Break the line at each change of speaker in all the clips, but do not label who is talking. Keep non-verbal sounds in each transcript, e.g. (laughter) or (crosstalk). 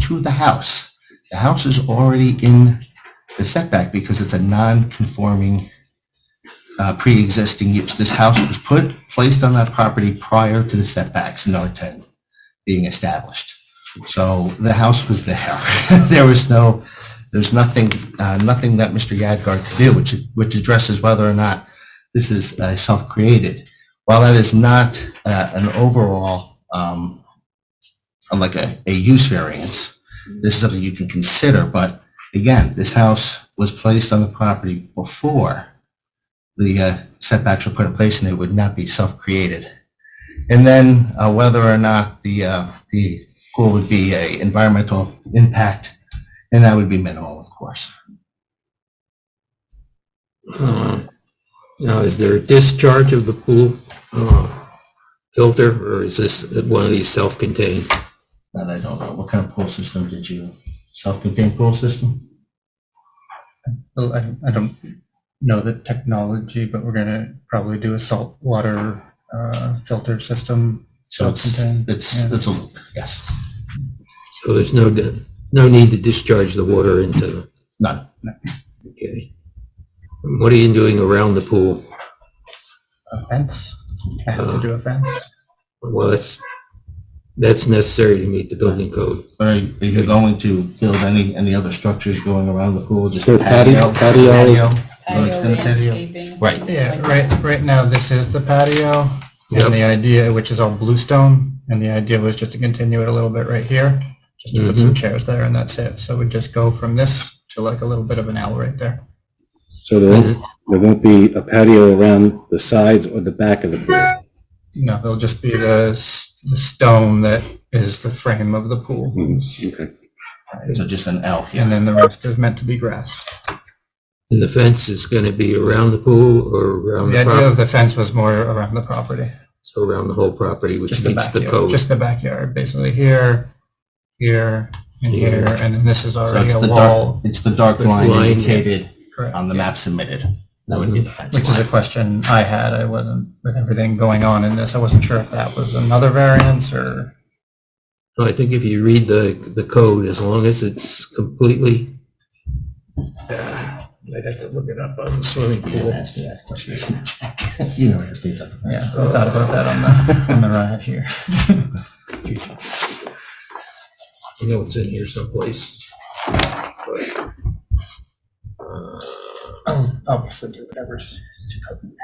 to the house. The house is already in the setback because it's a non-conforming, uh, pre-existing use. This house was put, placed on that property prior to the setbacks in R10 being established. So the house was there. (laughs) There was no, there's nothing, uh, nothing that Mr. Yadgar could do, which, which addresses whether or not this is uh, self-created. While that is not uh, an overall, um, like a, a use variance, this is something you can consider, but again, this house was placed on the property before the uh, setbacks were put in place, and it would not be self-created. And then uh, whether or not the, uh, the pool would be a environmental impact, and that would be minimal, of course.
Uh, Now, is there a discharge of the pool uh, filter, or is this one of these self-contained?
That I don't know. What kind of pool system did you, self-contained pool system?
Well, I, I don't know the technology, but we're gonna probably do a salt water uh, filter system.
So it's,
Self-contained,
it's,
yeah.
it's a loop, yes.
So there's no, di- no need to discharge the water into the,
None.
okay. And What are you doing around the pool?
A fence. I have to do a fence.
Well, that's, that's necessary to meet the building code.
But Are you are you going to build any, any other structures going around the pool, just
Sure,
patio?
patio, patio.
You wanna extend the patio? Right.
Yeah, right, right now, this is the patio.
Yep.
And the idea, which is all bluestone, and the idea was just to continue it a little bit right here, just to put some chairs there and that's it. So we just go from this to like a little bit of an L right there.
So there won't, there won't be a patio around the sides or the back of the pool?
No, it'll just be the, s- the stone that is the frame of the pool.
Mhm, Okay.
So just an L, yeah.
And then the rest is meant to be grass.
And the fence is going to be around the pool or around
The
the
idea
property?
of the fence was more around the property,
So around the whole property, which
just the
meets the
backyard,
code?
just the backyard, basically here, here, and
Yeah.
here, and then this is
So
already
it's
a
the dark,
wall,
it's the dark
Good
line
line.
indicated
correct,
on the map submitted. That would be the fence
which is a
line.
question I had, I wasn't, with everything going on in this, I wasn't sure if that was another variance or,
No, I think if you read the, the code, as long as it's completely
I'd have to look it up on the swimming
You didn't ask me that question. (laughs) You never asked me that.
Yeah, I thought about that on
(laughs)
the, on the ride here.
I know it's in here someplace. but, uh,
I'll obviously do whatever's.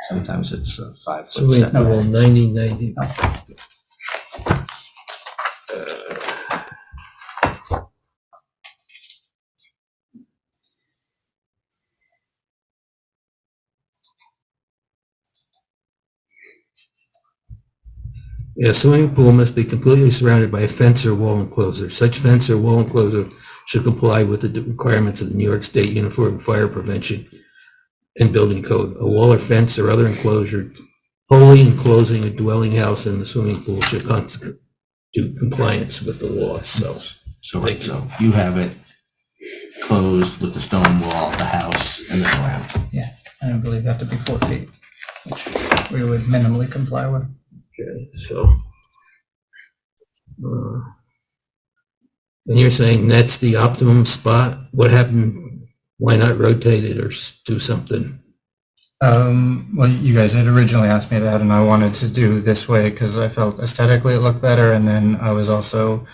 Sometimes it's a five
So
foot
we
setback.
have 90, 90. Uh, Yeah, swimming pool must be completely surrounded by a fence or wall enclosure. Such fence or wall enclosure should comply with the requirements of the New York State Uniform Fire Prevention and Building Code. A wall or fence or other enclosure wholly enclosing a dwelling house and the swimming pool should constitute compliance with the law, so.
So, right, so you have it closed with the stone wall, the house, and then around.
Yeah, I don't believe you have to be four feet, which we would minimally comply with.
Okay, so. uh, And you're saying that's the optimum spot? What happened? Why not rotate it or s- do something?
Um, well, you guys had originally asked me that, and I wanted to do this way because I felt aesthetically it looked better, and then I was also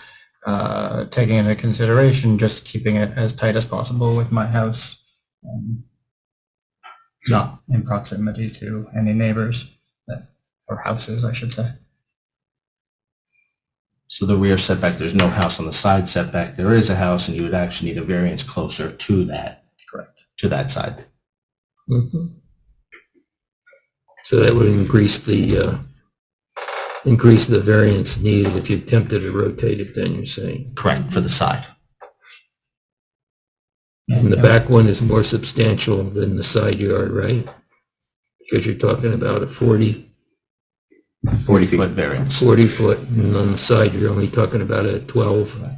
uh, taking into consideration just keeping it as tight as possible with my house um,
No,
in proximity to any neighbors that, or houses, I should say.
so the rear setback, there's no house on the side setback. There is a house, and you would actually need a variance closer to that.
Correct.
To that side.
So that would increase the, uh, increase the variance needed if you attempted to rotate it then, you're saying?
Correct, for the side.
And the back one is more substantial than the side yard, right? Because you're talking about a 40,
40 foot variance.
40 foot, and on the side, you're only talking about a 12,
Right.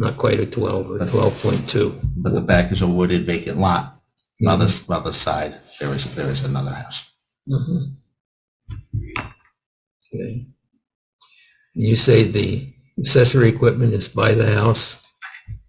not quite a 12, or
Right.
12.2.
But the back is a wooded vacant lot. While the, while the side, there is, there is another house.
Mhm. Okay. You say the accessory equipment is by the house?